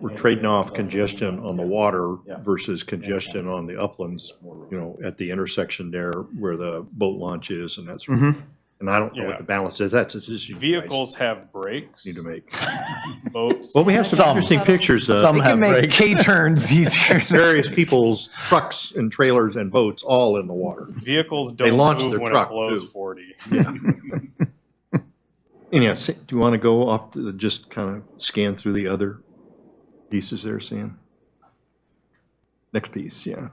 we're trading off congestion on the water Yeah. versus congestion on the uplands, you know, at the intersection there where the boat launch is and that's, and Mhm. I don't know what the balance is. That's a decision you guys Vehicles have brakes, need to make. boats. Well, we have some Some. interesting pictures Some of have make K turns easier. various people's trucks and trailers and boats all in the water. Vehicles They don't launch move their when truck, it blows too. 40. And yes, do you want to go up, to the- just kind of scan through the other pieces there, Sam? Next piece, yeah.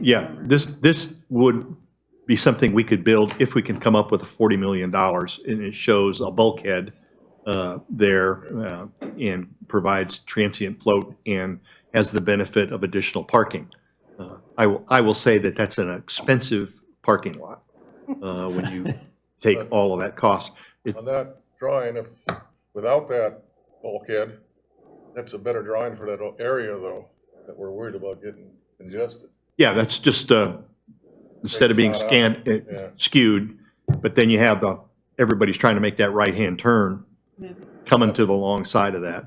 Yeah, this, this would be something we could build if we can come up with $40 million. And it shows a bulkhead uh, there uh, and provides transient float and has the benefit of additional parking. Uh, I will, I will say that that's an expensive parking lot uh, when you take all of that cost. On that drawing, if, without that bulkhead, that's a better drawing for that o- area though, that we're worried about getting congested. Yeah, that's just, uh, instead of being scanned, it- Yeah. skewed, but then you have the, everybody's trying to make that right-hand turn, Yeah. coming to the long side of that.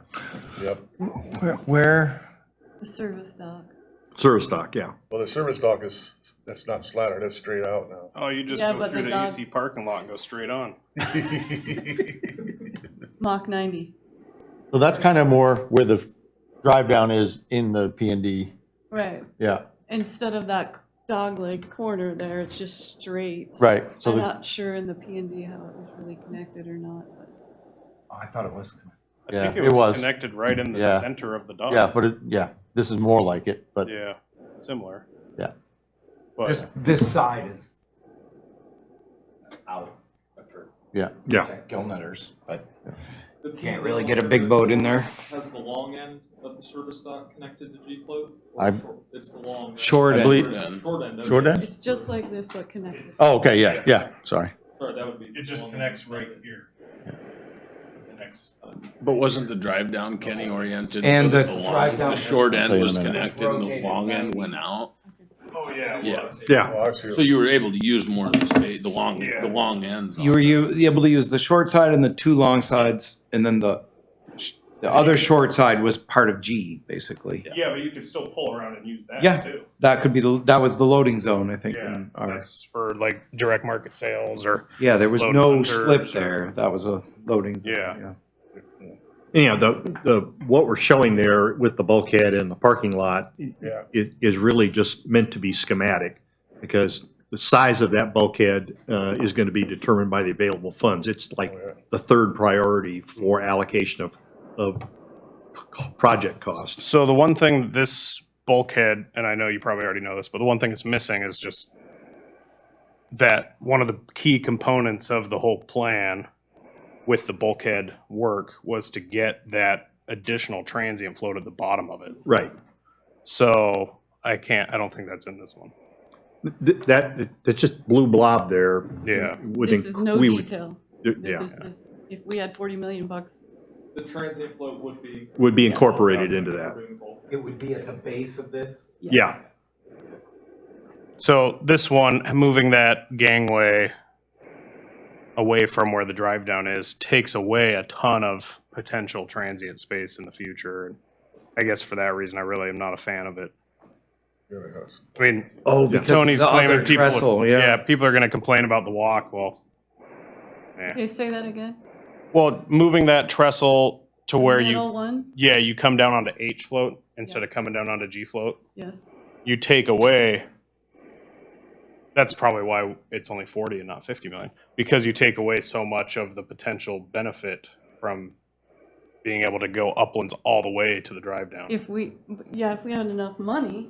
Yep. Where, where? The service dog. Service dock, yeah. Well, the service dock is, that's not slatted, that's straight out now. Oh, you just Yeah, go but through the the, dog- AC parking lot and go straight on. Mach 90. So that's kind of more where the drive down is in the P and D. Right. Yeah, Instead of that dog leg corner there, it's just straight. right. So I'm the, not sure in the P and D how it was really connected or not, but Oh, I thought it was. I Yeah, think it it was, was. connected right in the Yeah. center of the dock. yeah, but it, yeah, this is more like it, but Yeah, similar. Yeah. But This, this side is out after yeah. Yeah. gill nutters, but The P can't and D really get a big boat in there. Has the long end of the service dock connected to G float? or I'm- short- It's the long. end? Short I end. believe- Short end. okay. Short end? it's just like this, but connected. Oh, okay, yeah, yeah, sorry. Sorry, that would be. it just long end. connects right here. Connects. But wasn't the drive down Kenny oriented? so And that the long- drive down- The short Wait end a was minute. connected and the long end went out, Oh yeah. Yeah. Yeah, Oh, I see. so you were able to use more of the space, the long, Yeah. the long ends. You were u- able to use the short side and the two long sides, and then the, sh- the other short side was part of G, basically. Yeah, but you could still pull around and use that Yeah. too. That could be, the that was the loading zone, I think. Yeah, in our- that's for like direct market sales or Yeah, there was load no hunters slip or- there. That was a loading zone. Yeah. anyhow, the, the, what we're showing there with the bulkhead and the parking lot Yeah. i- is really just meant to be schematic, because the size of that bulkhead uh, is going to be determined by the available funds. It's like Oh, yeah. the third priority for allocation of, of co- project costs. So the one thing that this bulkhead, and I know you probably already know this, but the one thing it's missing is just that one of the key components of the whole plan with the bulkhead work was to get that additional transient flow to the bottom of it. Right. So I can't, I don't think that's in this one. Th- That, that's just blue blob there. Yeah. would This inc- is no we would- detail. This Yeah, is just, if we had 40 million bucks, The transient float would be. would be incorporated into that. It would be at the base of this. Yeah. yes. So this one, moving that gangway away from where the drive down is, takes away a ton of potential transient space in the future. And I guess for that reason, I really am not a fan of it. Yeah, yes. I mean, Oh, Yeah. because Tony's the claiming other people, trestle, yeah. people are going to complain about the walk. Well, Okay, say that again. well, moving that trestle to where Middle you, one, yeah, you come down onto H float instead of coming down onto G float. yes. You take away. That's probably why it's only forty and not fifty million, because you take away so much of the potential benefit from being able to go uplands all the way to the drive down. If we, yeah, if we had enough money,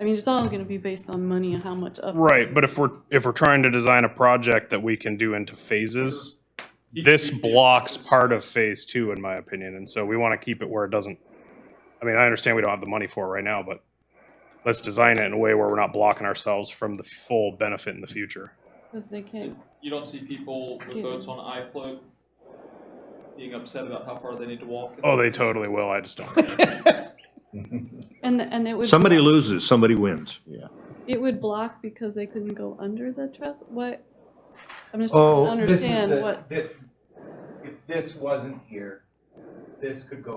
I mean, it's all gonna be based on money and how much up. Right, but if we're, if we're trying to design a project that we can do into phases, this blocks part of phase two, in my opinion, and so we want to keep it where it doesn't. I mean, I understand we don't have the money for it right now, but let's design it in a way where we're not blocking ourselves from the full benefit in the future. Because they can't, You don't see people with boats on I float being upset about how far they need to walk. Oh, they totally will, I just don't. and, and it would. Somebody block- loses, somebody wins. It would block because they couldn't go under the trestle, what? I'm just trying Oh, to this is understand the- what. thi- If this wasn't here, this could go